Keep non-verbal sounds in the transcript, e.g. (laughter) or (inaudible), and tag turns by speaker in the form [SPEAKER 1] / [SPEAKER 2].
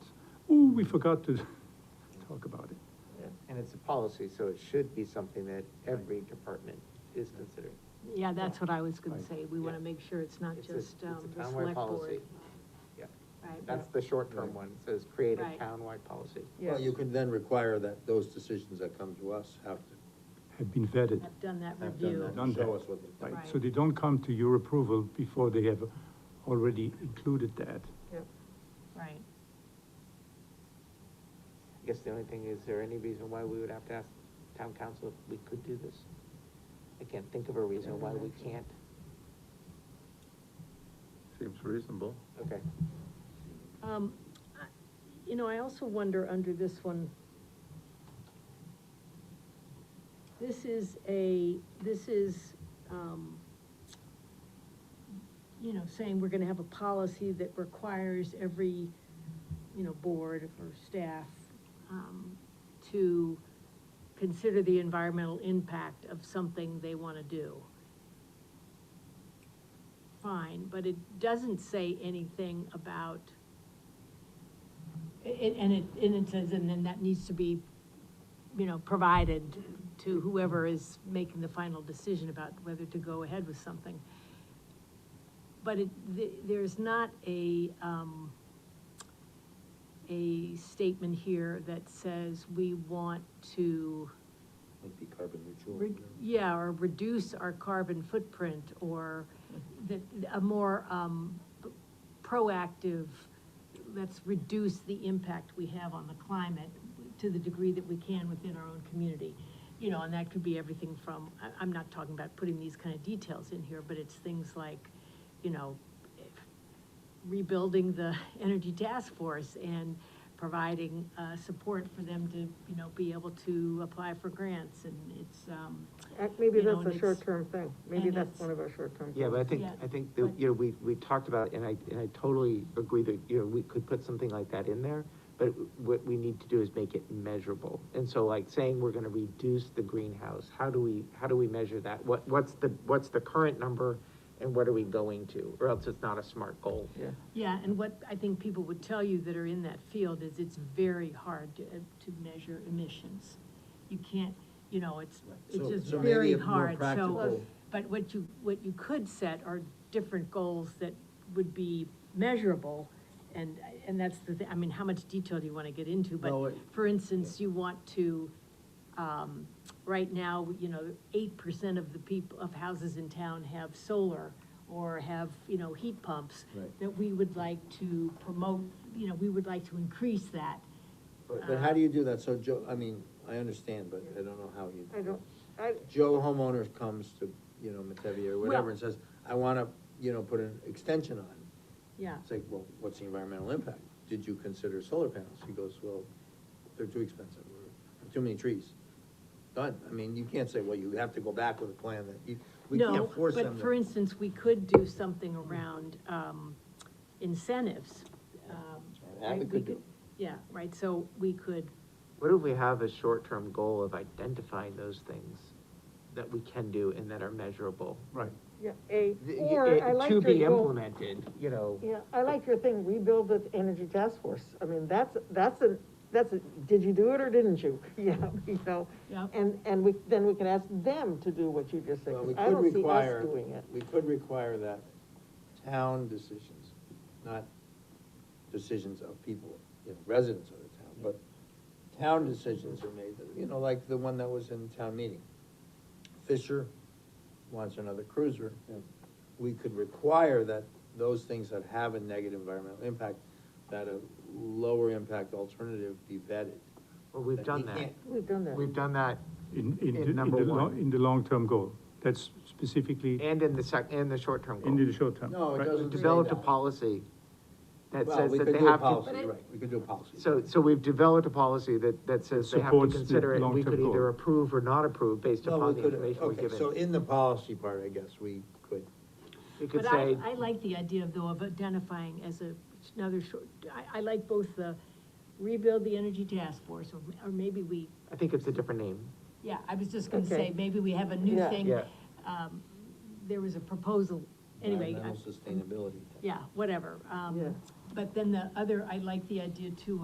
[SPEAKER 1] we forgot to (laughs) talk about it.
[SPEAKER 2] And it's a policy, so it should be something that every department is considering.
[SPEAKER 3] Yeah, that's what I was gonna
[SPEAKER 1] Right.
[SPEAKER 3] say, we wanna
[SPEAKER 2] Yeah.
[SPEAKER 3] make sure it's not
[SPEAKER 2] It's a-
[SPEAKER 3] just,
[SPEAKER 2] It's
[SPEAKER 3] um,
[SPEAKER 2] a
[SPEAKER 3] the
[SPEAKER 2] townwide
[SPEAKER 3] select
[SPEAKER 2] policy.
[SPEAKER 3] board.
[SPEAKER 2] Yeah,
[SPEAKER 3] Right.
[SPEAKER 2] that's the short-term one, it says create a
[SPEAKER 3] Right.
[SPEAKER 2] townwide policy.
[SPEAKER 4] Well, you can then require that those decisions that come to us have to
[SPEAKER 1] Had been vetted,
[SPEAKER 3] I've done that
[SPEAKER 4] have done
[SPEAKER 3] review.
[SPEAKER 4] that,
[SPEAKER 1] Done
[SPEAKER 4] and show
[SPEAKER 1] that.
[SPEAKER 4] us what they
[SPEAKER 1] right?
[SPEAKER 4] think.
[SPEAKER 1] So they don't come to your approval before they have already included that.
[SPEAKER 3] Right.
[SPEAKER 2] I guess the only thing, is there any reason why we would have to ask town council if we could do this? I can't think of a reason why we can't.
[SPEAKER 5] Seems reasonable.
[SPEAKER 2] Okay.
[SPEAKER 3] Um, I- you know, I also wonder under this one, this is a, this is, um, you know, saying we're gonna have a policy that requires every, you know, board or staff, um, to consider the environmental impact of something they wanna do fine, but it doesn't say anything about, i- i- and it, and it says, and then that needs to be, you know, provided to whoever is making the final decision about whether to go ahead with something. But it, th- there's not a, um, a statement here that says we want to,
[SPEAKER 4] Might be carbon neutral.
[SPEAKER 3] Re- Yeah, or reduce our carbon footprint, or the, a more, um, p- proactive, let's reduce the impact we have on the climate to the degree that we can within our own community. You know, and that could be everything from, I, I'm not talking about putting these kind of details in here, but it's things like, you know, rebuilding the energy task force and providing, uh, support for them to, you know, be able to apply for grants, and it's, um,
[SPEAKER 6] Uh, Maybe
[SPEAKER 3] You know,
[SPEAKER 6] that's
[SPEAKER 3] and
[SPEAKER 6] a
[SPEAKER 3] it's-
[SPEAKER 6] short-term thing, maybe
[SPEAKER 3] and
[SPEAKER 6] that's
[SPEAKER 3] it's-
[SPEAKER 6] one of our short-term.
[SPEAKER 2] Yeah, but I
[SPEAKER 6] things.
[SPEAKER 2] think,
[SPEAKER 3] Yeah.
[SPEAKER 2] I think, that, you know, we, we talked about, it, and I, and I totally agree that, you know, we could put something like that in there, but what we need to do is make it measurable. And so like saying we're gonna reduce the greenhouse, how do we, how do we measure that? What, what's the, what's the current number and what are we going to? Or else it's not a smart goal. Yeah.
[SPEAKER 3] Yeah, and what I think people would tell you that are in that field is it's very hard to, uh, to measure emissions. You can't, you know, it's, it's
[SPEAKER 4] So-
[SPEAKER 3] just
[SPEAKER 4] so maybe
[SPEAKER 3] very
[SPEAKER 4] a more
[SPEAKER 3] hard, so. uh,
[SPEAKER 4] practical-
[SPEAKER 3] But what you, what you could set are different goals that would be measurable, and, and that's the, thi- I mean, how much detail do you wanna get into?
[SPEAKER 4] No,
[SPEAKER 3] But,
[SPEAKER 4] it-
[SPEAKER 3] for instance, you want to, um, right now, you know, eight percent of the people, of houses in town have solar or have, you know, heat pumps.
[SPEAKER 4] Right.
[SPEAKER 3] That we would like to promote, you know, we would like to increase that.
[SPEAKER 4] But but how do you do that? So Joe, I mean, I understand, but I don't know how you.
[SPEAKER 6] I don't, I,
[SPEAKER 4] Joe homeowners comes to, you know, Metevi or
[SPEAKER 3] Well-
[SPEAKER 4] whatever and says, I wanna, you know, put an extension on.
[SPEAKER 3] Yeah.
[SPEAKER 4] It's like, well, what's the environmental impact? Did you consider solar panels? He goes, well, they're too expensive, or too many trees. Done. I mean, you can't say, well, you have to go back with a plan that you, we
[SPEAKER 3] No,
[SPEAKER 4] can't force them.
[SPEAKER 3] But
[SPEAKER 4] to-
[SPEAKER 3] for instance, we could do something around, um, incentives. um,
[SPEAKER 4] That we
[SPEAKER 3] right?
[SPEAKER 4] could do.
[SPEAKER 3] Yeah, right, so we could,
[SPEAKER 2] What if we have a short-term goal of identifying those things that we can do and that are measurable?
[SPEAKER 1] Right.
[SPEAKER 6] yeah, A,
[SPEAKER 2] Th-
[SPEAKER 6] or I
[SPEAKER 2] it-
[SPEAKER 6] like
[SPEAKER 2] To
[SPEAKER 6] your
[SPEAKER 2] be
[SPEAKER 6] goal.
[SPEAKER 2] implemented, you know.
[SPEAKER 6] Yeah, I like your thing, rebuild the energy task force, I mean, that's, that's a, that's a, did you do it or didn't you? (laughs) Yeah, you know,
[SPEAKER 3] Yeah.
[SPEAKER 6] and, and we, then we can ask them to do what you just said,
[SPEAKER 4] Well,
[SPEAKER 6] 'cause
[SPEAKER 4] we
[SPEAKER 6] I
[SPEAKER 4] could
[SPEAKER 6] don't see us
[SPEAKER 4] require,
[SPEAKER 6] doing it.
[SPEAKER 4] we could require that town decisions, not decisions of people, you know, residents of the town, but town decisions are made, you know, like the one that was in town meeting. Fisher wants another cruiser. We could require that those things that have a negative environmental impact, that a lower impact alternative be vetted.
[SPEAKER 2] Well, we've
[SPEAKER 4] That
[SPEAKER 2] done
[SPEAKER 4] he
[SPEAKER 2] that.
[SPEAKER 4] can't-
[SPEAKER 6] We've done that.
[SPEAKER 2] We've done that
[SPEAKER 1] In, in,
[SPEAKER 2] In
[SPEAKER 1] the- in the,
[SPEAKER 2] number
[SPEAKER 1] lo-
[SPEAKER 2] one.
[SPEAKER 1] in the long-term goal, that's specifically
[SPEAKER 2] and in the sec, and the short-term
[SPEAKER 1] in the
[SPEAKER 2] goal.
[SPEAKER 1] short term.
[SPEAKER 4] No, it
[SPEAKER 1] right?
[SPEAKER 4] doesn't say
[SPEAKER 2] Developed a
[SPEAKER 4] that.
[SPEAKER 2] policy that
[SPEAKER 4] Well,
[SPEAKER 2] says
[SPEAKER 4] we
[SPEAKER 2] that
[SPEAKER 4] could
[SPEAKER 2] they
[SPEAKER 4] do a
[SPEAKER 2] have to.
[SPEAKER 4] policy, Right, we could do a policy.
[SPEAKER 2] So, so we've developed a policy that, that says they have to
[SPEAKER 1] Supports the
[SPEAKER 2] consider it, and we
[SPEAKER 1] long-term
[SPEAKER 2] could
[SPEAKER 1] goal.
[SPEAKER 2] either approve or not approve based
[SPEAKER 4] Well,
[SPEAKER 2] upon the
[SPEAKER 4] we could-
[SPEAKER 2] information we're
[SPEAKER 4] okay, So
[SPEAKER 2] given.
[SPEAKER 4] in the policy part, I guess, we could,
[SPEAKER 2] We could
[SPEAKER 3] But I,
[SPEAKER 2] say,
[SPEAKER 3] I like the idea though of identifying as a, another short, I, I like both the rebuild the energy task force, or, or maybe we,
[SPEAKER 2] I think it's a different name.
[SPEAKER 3] yeah, I was just gonna
[SPEAKER 6] Okay.
[SPEAKER 3] say, maybe we have a new
[SPEAKER 6] Yeah.
[SPEAKER 3] thing.
[SPEAKER 2] Yeah.
[SPEAKER 3] Um, there was a proposal, anyway, I-
[SPEAKER 4] environmental sustainability.
[SPEAKER 3] yeah, whatever,
[SPEAKER 6] Yeah.
[SPEAKER 3] um, but then the other, I like the idea too